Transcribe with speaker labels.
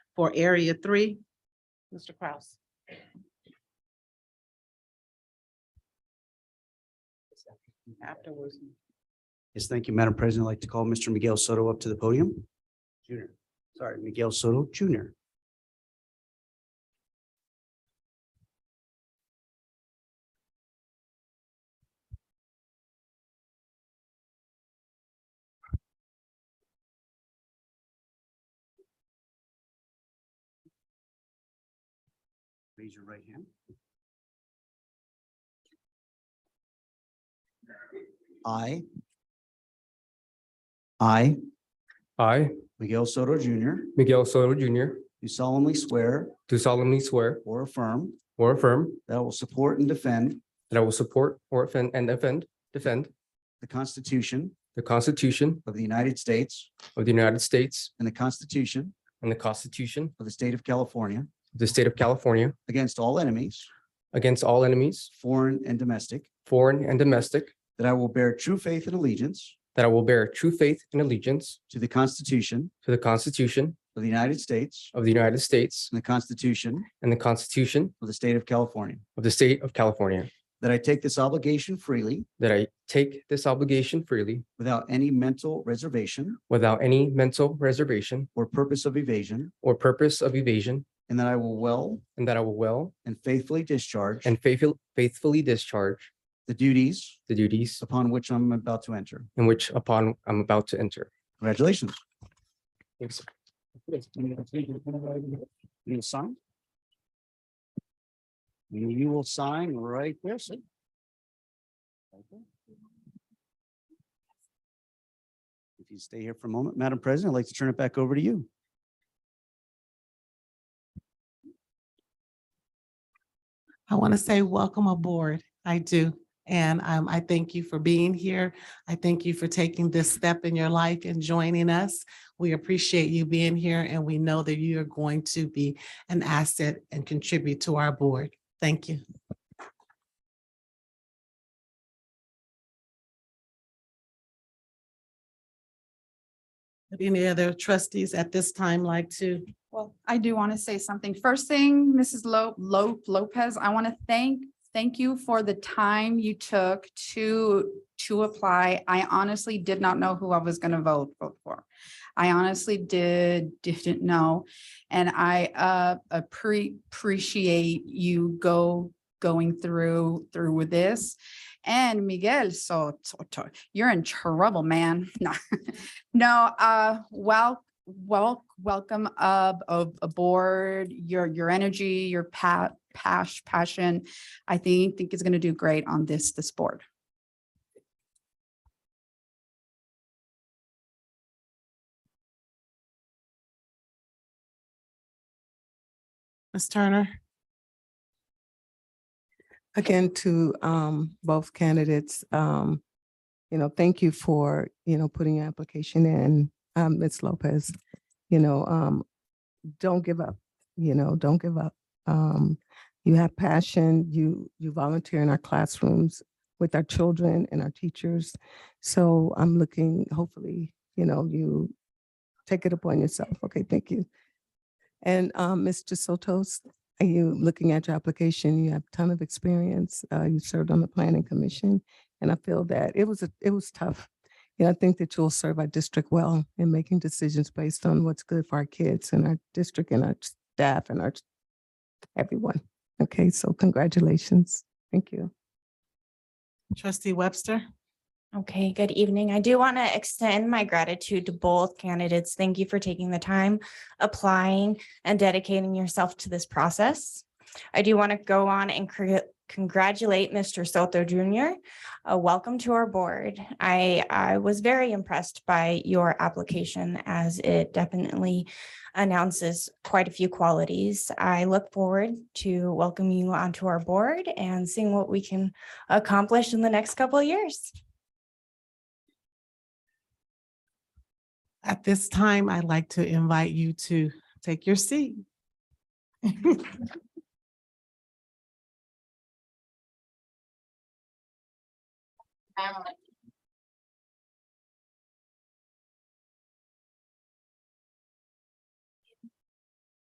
Speaker 1: for area three? Mr. Kraus. Afterwards.
Speaker 2: Yes, thank you, Madam President. I'd like to call Mr. Miguel Soto up to the podium. Junior, sorry, Miguel Soto Junior. Raise your right hand. I. I,
Speaker 3: I,
Speaker 2: Miguel Soto Junior,
Speaker 3: Miguel Soto Jr.,
Speaker 2: do solemnly swear
Speaker 3: do solemnly swear
Speaker 2: or affirm
Speaker 3: or affirm
Speaker 2: that I will support and defend
Speaker 3: that I will support or offend and defend, defend
Speaker 2: the Constitution
Speaker 3: the Constitution
Speaker 2: of the United States
Speaker 3: of the United States
Speaker 2: and the Constitution
Speaker 3: and the Constitution
Speaker 2: of the State of California
Speaker 3: of the State of California
Speaker 2: against all enemies,
Speaker 3: against all enemies,
Speaker 2: foreign and domestic,
Speaker 3: foreign and domestic,
Speaker 2: that I will bear true faith and allegiance
Speaker 3: that I will bear true faith and allegiance
Speaker 2: to the Constitution
Speaker 3: to the Constitution
Speaker 2: of the United States
Speaker 3: of the United States
Speaker 2: and the Constitution
Speaker 3: and the Constitution
Speaker 2: of the State of California,
Speaker 3: of the State of California,
Speaker 2: that I take this obligation freely
Speaker 3: that I take this obligation freely
Speaker 2: without any mental reservation
Speaker 3: without any mental reservation
Speaker 2: or purpose of evasion,
Speaker 3: or purpose of evasion,
Speaker 2: and that I will well
Speaker 3: and that I will well
Speaker 2: and faithfully discharge
Speaker 3: and faithful- faithfully discharge
Speaker 2: the duties
Speaker 3: the duties
Speaker 2: upon which I'm about to enter.
Speaker 3: in which upon I'm about to enter.
Speaker 2: Congratulations.
Speaker 3: Thanks.
Speaker 2: You'll sign? You you will sign right there, sir. If you stay here for a moment, Madam President, I'd like to turn it back over to you.
Speaker 1: I want to say welcome aboard. I do. And um, I thank you for being here. I thank you for taking this step in your life and joining us. We appreciate you being here and we know that you are going to be an asset and contribute to our board. Thank you. Would Any other trustees at this time like to?
Speaker 4: Well, I do want to say something. First thing, Mrs. Lo- Lo- Lopez, I want to thank, thank you for the time you took to, to apply. I honestly did not know who I was going to vote, vote for. I honestly did, didn't know. And I, uh, appre- appreciate you go, going through, through with this. And Miguel, so, so- you're in trouble, man. No, no, uh, well, well, welcome up of aboard, your your energy, your pat pash passion. I think think is gonna do great on this this board.
Speaker 5: Ms. Turner? Again, to um both candidates, um, you know, thank you for, you know, putting your application in, um, Ms. Lopez. You know, um, don't give up, you know, don't give up. Um, you have passion, you you volunteer in our classrooms with our children and our teachers. So I'm looking, hopefully, you know, you take it upon yourself. Okay, thank you. And um, Mr. Sotos, are you looking at your application? You have a ton of experience. Uh, you served on the planning commission. And I feel that it was, a it was tough. And I think that you'll serve our district well in making decisions based on what's good for our kids and our district and our staff and our everyone. Okay, so congratulations. Thank you.
Speaker 1: Trustee Webster?
Speaker 6: Okay, good evening. I do want to extend my gratitude to both candidates. Thank you for taking the time, applying, and dedicating yourself to this process. I do want to go on and congr- congratulate Mr. Soto Jr. Uh, Welcome to our board. I, I was very impressed by your application as it definitely announces quite a few qualities. I look forward to welcoming you onto our board and seeing what we can accomplish in the next couple of years.
Speaker 1: At this time, I'd like to invite you to take your seat.
Speaker 7: I want to